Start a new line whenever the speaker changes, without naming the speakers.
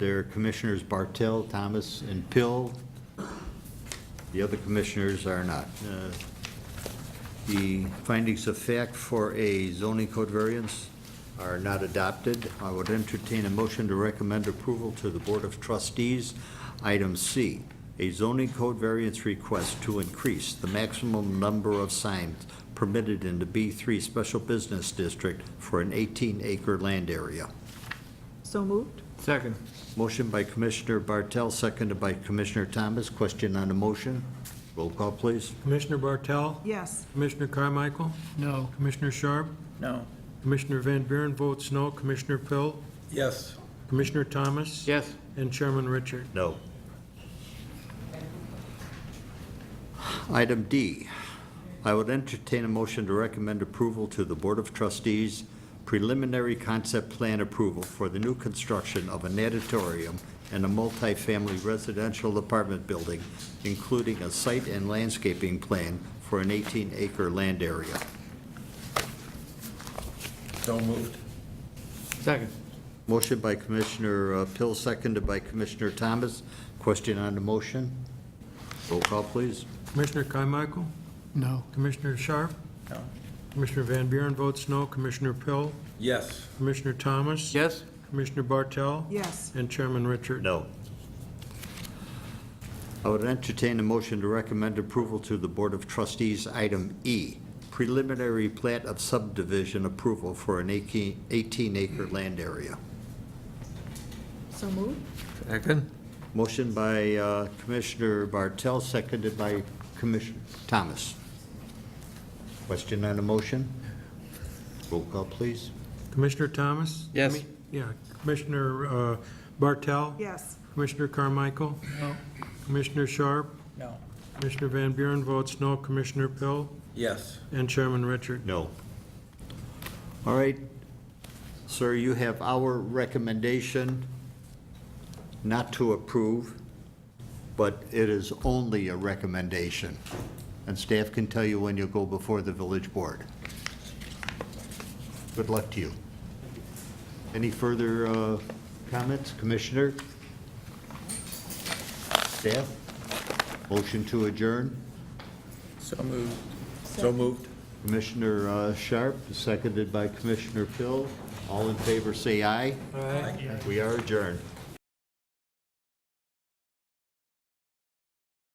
They're Commissioners Bartel, Thomas, and Pill. The other commissioners are not. Uh, The findings of fact for a zoning code variance are not adopted. I would entertain a motion to recommend approval to the Board of Trustees. Item C, a zoning code variance request to increase the maximum number of signs permitted in the B3 Special Business District for an 18-acre land area.
So moved?
Second.
Motion by Commissioner Bartel, seconded by Commissioner Thomas. Question on the motion? Roll call, please.
Commissioner Bartel?
Yes.
Commissioner Carmichael?
No.
Commissioner Sharp?
No.
Commissioner Van Buren votes no. Commissioner Pill?
Yes.
Commissioner Thomas?
Yes.
And Chairman Richard?
No. Item D, I would entertain a motion to recommend approval to the Board of Trustees preliminary concept plan approval for the new construction of an auditorium and a multifamily residential apartment building, including a site and landscaping plan for an 18-acre land area.
So moved. Second.
Motion by Commissioner uh, Pill, seconded by Commissioner Thomas. Question on the motion? Roll call, please.
Commissioner Carmichael?
No.
Commissioner Sharp?
No.
Commissioner Van Buren votes no. Commissioner Pill?
Yes.
Commissioner Thomas?
Yes.
Commissioner Bartel?
Yes.
And Chairman Richard?
No. I would entertain a motion to recommend approval to the Board of Trustees, item E, preliminary plat of subdivision approval for an 18-acre land area.
So moved?
Second.
Motion by uh, Commissioner Bartel, seconded by Commissioner Thomas. Question on the motion? Roll call, please.
Commissioner Thomas?
Yes.
Yeah. Commissioner uh, Bartel?
Yes.
Commissioner Carmichael?
No.
Commissioner Sharp?
No.
Commissioner Van Buren votes no. Commissioner Pill?
Yes.
And Chairman Richard?
No. All right, sir, you have our recommendation not to approve, but it is only a recommendation. And staff can tell you when you'll go before the village board. Good luck to you. Any further uh, comments, Commissioner? Staff? Motion to adjourn?
So moved. So moved.
Commissioner uh, Sharp, seconded by Commissioner Pill. All in favor, say aye.
Aye.
We are adjourned.